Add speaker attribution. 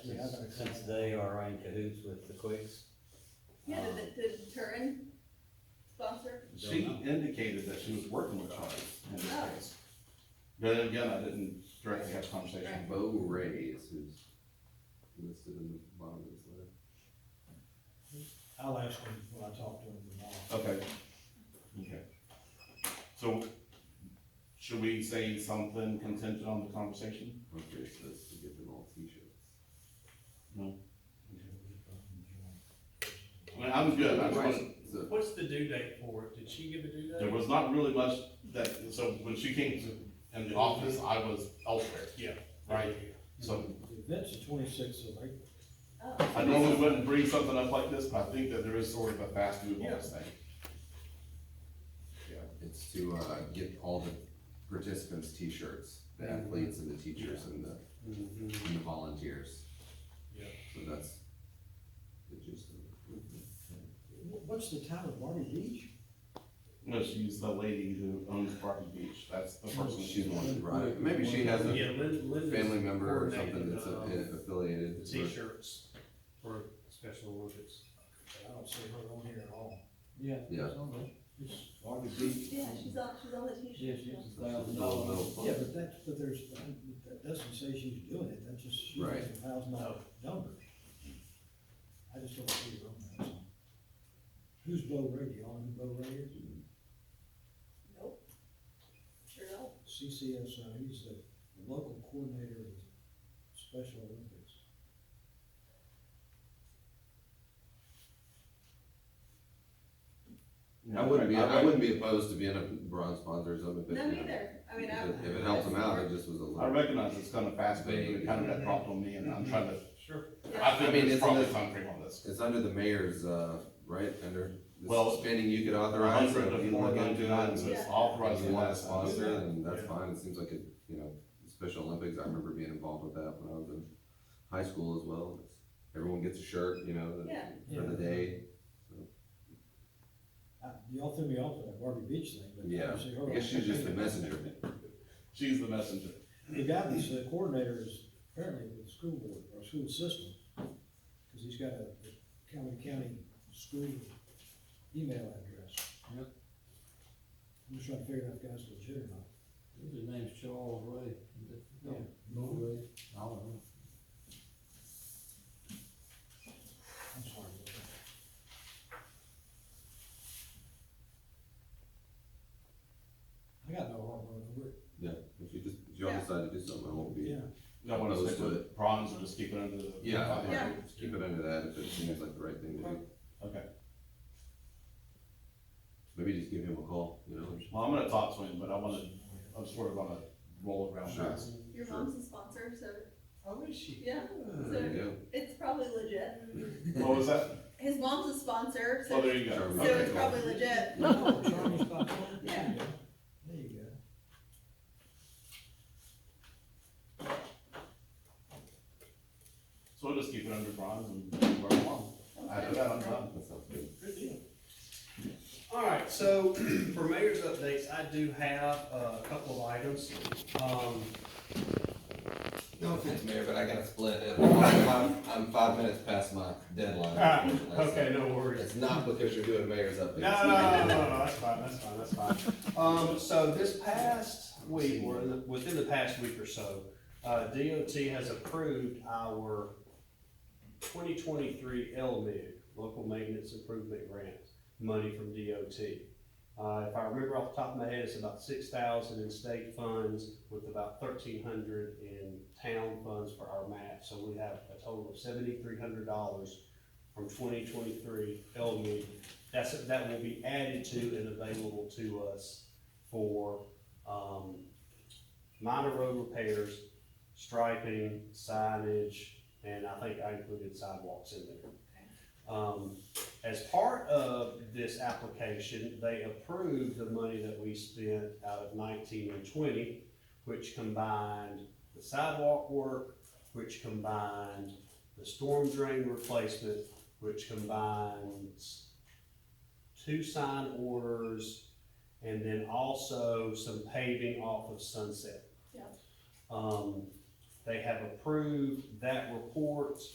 Speaker 1: That's
Speaker 2: since,
Speaker 1: exciting.
Speaker 2: since they are in cahoots with the Quicks.
Speaker 3: Yeah,
Speaker 2: um,
Speaker 3: did, did Turin sponsor?
Speaker 4: She
Speaker 2: don't know.
Speaker 4: indicated that she was working with Charlie in this
Speaker 3: Oh.
Speaker 4: case. But again, I didn't directly have a conversation.
Speaker 5: Bo Ray is who's listed in the bottom of this letter.
Speaker 1: I'll ask him when I talk to him tomorrow.
Speaker 4: Okay. Okay. So should we say something contingent on the conversation?
Speaker 5: Okay, so it's to get them all t-shirts.
Speaker 4: I mean, I'm good. I just wanted-
Speaker 5: Right, so-
Speaker 6: What's the due date for it? Did she give a due
Speaker 4: there
Speaker 6: date?
Speaker 4: was not really much that, so when she came to, in the office, I was elsewhere.
Speaker 6: Yeah.
Speaker 4: Right? So
Speaker 1: The event's the twenty-sixth of April.
Speaker 3: Oh,
Speaker 4: I normally wouldn't bring something up like this, but I think that there is sort of a fast move on this thing.
Speaker 5: It's to, uh, get all the participants t-shirts, the athletes and the teachers and the, and the volunteers.
Speaker 6: Yeah.
Speaker 5: So that's the gist of it.
Speaker 1: Wh- What's the time of Marty Beach?
Speaker 4: No, she's the lady who owns Barton Beach. That's the person
Speaker 5: She's
Speaker 4: she's
Speaker 5: the one
Speaker 4: wanted.
Speaker 5: who brought it. Maybe she has a
Speaker 6: Yeah, Lynn, Lynn
Speaker 5: family
Speaker 6: is
Speaker 5: member or something
Speaker 6: coordinating,
Speaker 5: that's a-
Speaker 6: um,
Speaker 5: affiliated.
Speaker 6: the
Speaker 5: with-
Speaker 6: t-shirts for Special Olympics.
Speaker 1: I don't see her on here at all. Yeah.
Speaker 5: Yeah.
Speaker 1: it's on there. It's-
Speaker 7: Marty Beach.
Speaker 3: yeah, she's on, she's on the
Speaker 7: Yeah,
Speaker 3: t-shirt.
Speaker 7: she was a
Speaker 5: It's
Speaker 7: thousand
Speaker 5: a little-
Speaker 7: dollars.
Speaker 5: little fun.
Speaker 1: Yeah, but that's, but there's, that doesn't say she's doing it, that just, she has
Speaker 5: Right.
Speaker 1: a thousand dollar number. I just don't see her on that. that's all. Who's Bo Ray, Do you all know who Bo Ray is?
Speaker 3: Nope. Sure don't.
Speaker 1: CCSO, he's the local coordinator of the Special Olympics.
Speaker 5: I wouldn't be, I wouldn't be opposed to being a bronze sponsors of it, but.
Speaker 3: No,
Speaker 5: you know,
Speaker 3: neither. I mean, I.
Speaker 5: If it- if it helps them out, it just was a
Speaker 4: I
Speaker 5: little.
Speaker 4: recognize it's kind of fast, but it kind of got dropped on me and I'm trying to,
Speaker 6: Sure.
Speaker 3: Yeah.
Speaker 4: I think
Speaker 5: I mean,
Speaker 4: there's
Speaker 5: it's in
Speaker 4: probably
Speaker 5: the-
Speaker 4: time frame on this.
Speaker 5: It's under the mayor's, uh, right, under the
Speaker 4: Well,
Speaker 5: spending you could authorize. so
Speaker 4: Hundred
Speaker 5: if
Speaker 4: to
Speaker 5: you
Speaker 4: four
Speaker 5: look into it
Speaker 4: ninety-nine, so
Speaker 5: and-
Speaker 4: it's
Speaker 3: Yeah.
Speaker 5: If
Speaker 4: authorized.
Speaker 5: you
Speaker 4: in
Speaker 5: want
Speaker 4: that
Speaker 5: to sponsor it,
Speaker 4: size.
Speaker 5: and that's
Speaker 6: Yeah.
Speaker 5: fine, it seems like it, you know, Special Olympics, I remember being involved with that when I was in high school as well. It's- Everyone gets a shirt, you know, the-
Speaker 3: Yeah,
Speaker 5: for the day,
Speaker 1: Uh, y'all threw me off with that Barbie Beach thing, but I
Speaker 5: yeah,
Speaker 1: don't see her.
Speaker 5: I guess
Speaker 1: on
Speaker 5: she's just
Speaker 1: there.
Speaker 5: the messenger.
Speaker 4: She's the messenger.
Speaker 1: The guy that's the coordinator is apparently with the school board, or school system, because he's got a county, county school email address.
Speaker 7: Yep.
Speaker 1: I'm just trying to figure out if the guy's legit or not.
Speaker 7: His name's Charles Ray.
Speaker 1: Yeah.
Speaker 7: Bo Ray, I don't know.
Speaker 1: I'm sorry. about that. I got no heart, bro,
Speaker 5: Yeah, if you just, if y'all decide to do something, I won't
Speaker 1: we
Speaker 5: be,
Speaker 1: yeah,
Speaker 4: Y'all want to
Speaker 5: Those
Speaker 4: stick
Speaker 5: do
Speaker 4: with bronze or just keep it under the?
Speaker 5: yeah,
Speaker 4: Okay.
Speaker 3: Yeah.
Speaker 5: just keep it under that if it seems like the right thing to do.
Speaker 4: Okay.
Speaker 5: Maybe just give him a call, you know,
Speaker 4: Well, I'm gonna talk to him, but I wanna, I'm sort of on a roll around
Speaker 5: Sure.
Speaker 4: fast.
Speaker 3: your
Speaker 5: Sure.
Speaker 3: mom's a sponsor, so
Speaker 6: How is she?
Speaker 3: yeah,
Speaker 5: there you go.
Speaker 3: it's probably legit.
Speaker 4: What was that?
Speaker 3: His mom's a sponsor,
Speaker 4: Oh,
Speaker 3: so,
Speaker 4: there you go.
Speaker 5: Sure.
Speaker 3: so
Speaker 4: Okay,
Speaker 3: it's
Speaker 4: cool.
Speaker 3: probably legit.
Speaker 1: Oh, Charlie's not
Speaker 3: Yeah.
Speaker 1: There you go.
Speaker 4: So we'll just keep it under bronze and work along. After that, I'm done.
Speaker 5: That sounds good.
Speaker 6: Good deal. All right, so for mayor's updates, I do have uh, a couple of items. Um,
Speaker 5: No offense, Mayor, but I gotta split it. I'm, I'm five minutes past my deadline. unfortunately, so
Speaker 6: Ah, Okay, no worries.
Speaker 5: It's not because you're doing mayor's updates.
Speaker 6: No, no, no, no, no, no, that's fine, that's fine, that's fine. Um, so this past week, or the- within the past week or so, uh, DOT has approved our twenty twenty-three LMIG, Local Maintenance Improvement Grant, money from DOT. Uh, if I remember off the top of my head, it's about six thousand in state funds with about thirteen hundred in town funds for our match. So we have a total of seventy-three hundred dollars from twenty twenty-three LMIG that's, that will be added to and available to us for, um, minor road repairs, striping, signage, and I think I included sidewalks in there. Um, as part of this application, they approved the money that we spent out of nineteen and twenty, which combined the sidewalk work, which combined the storm drain replacement, which combines two sign orders, and then also some paving off of Sunset.
Speaker 3: Yeah.
Speaker 6: Um, they have approved that report,